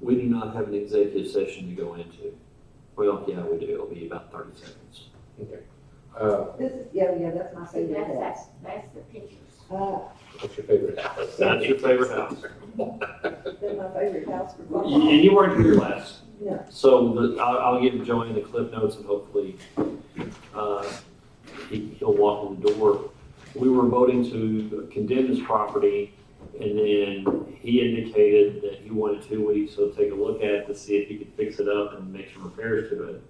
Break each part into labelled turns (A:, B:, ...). A: We do not have an executive session to go into. Well, yeah, we do. It'll be about thirty seconds.
B: Okay. Uh,
C: This is, yeah, yeah, that's my
D: See,
C: favorite
D: that's,
C: house.
D: that's, that's the pictures.
C: Uh,
B: what's your favorite house?
A: That's your favorite house.
C: that's my favorite house for quite a while.
A: And you weren't here last.
C: No.
A: So the- I'll, I'll give Joanne the clip notes and hopefully, uh, he, he'll walk in the door. We were voting to condemn this property and then he indicated that he wanted two weeks, so take a look at it to see if he could fix it up and make some repairs to it.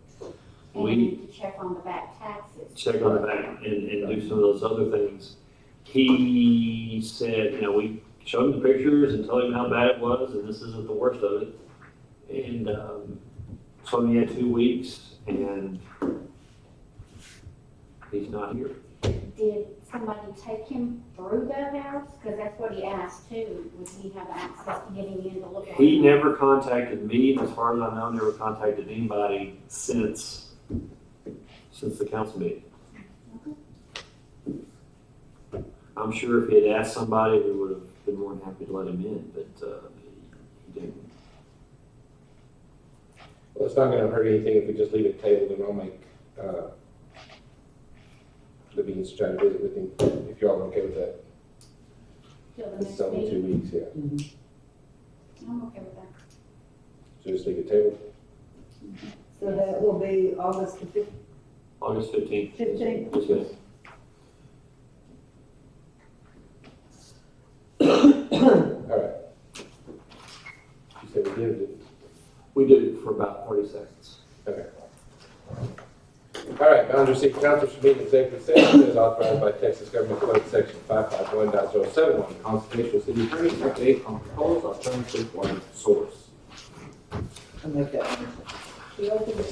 D: And
A: We-
D: you need to check on the back taxes.
A: check on the back and, and do some of those other things. He said, you know, we showed him the pictures and told him how bad it was, and this isn't the worst of it. And, um, so he had two weeks, and he's not here.
D: Did somebody take him through that house? Because that's what he asked too, would he have access to getting in to look at?
A: He
D: it?
A: never contacted me, and as far as I know, never contacted anybody since, since the council meeting. I'm sure if he had asked somebody, we would have been more than happy to let him in, but, uh, he didn't.
B: Well, it's not gonna hurt anything if we just leave it tabled and I'll make, uh, the means to try to visit with him, if y'all are okay with that.
D: Till the
B: It's
D: next
B: only two
D: meeting?
B: weeks, yeah.
D: I'm okay with that.
B: So just leave it tabled.
C: So that will be August the fif-
A: August fifteenth.
C: fifteenth.
A: Yes, ma'am.
B: All right. You said we did it.
A: We did it for about thirty seconds.
B: Okay. All right, Boundary City Council should meet in executive session as authorized by Texas Government Code Section 551.071, consultation with city attorney, update on proposed alternative water source.
C: I'll make that one. We open it.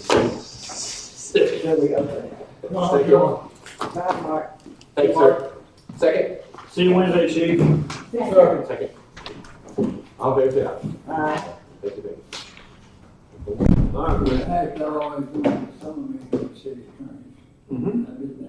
C: There we open
B: Thank you all.
C: it. Bye, Mark.
B: Thanks, sir. Second?
A: See you Wednesday, chief.
B: Second. All in favor, say
C: Bye.
B: aye. Thank you, ma'am.
A: All right.
E: In fact, I always wanted some of me to be city attorney.
A: Mm-hmm.
E: I did uh,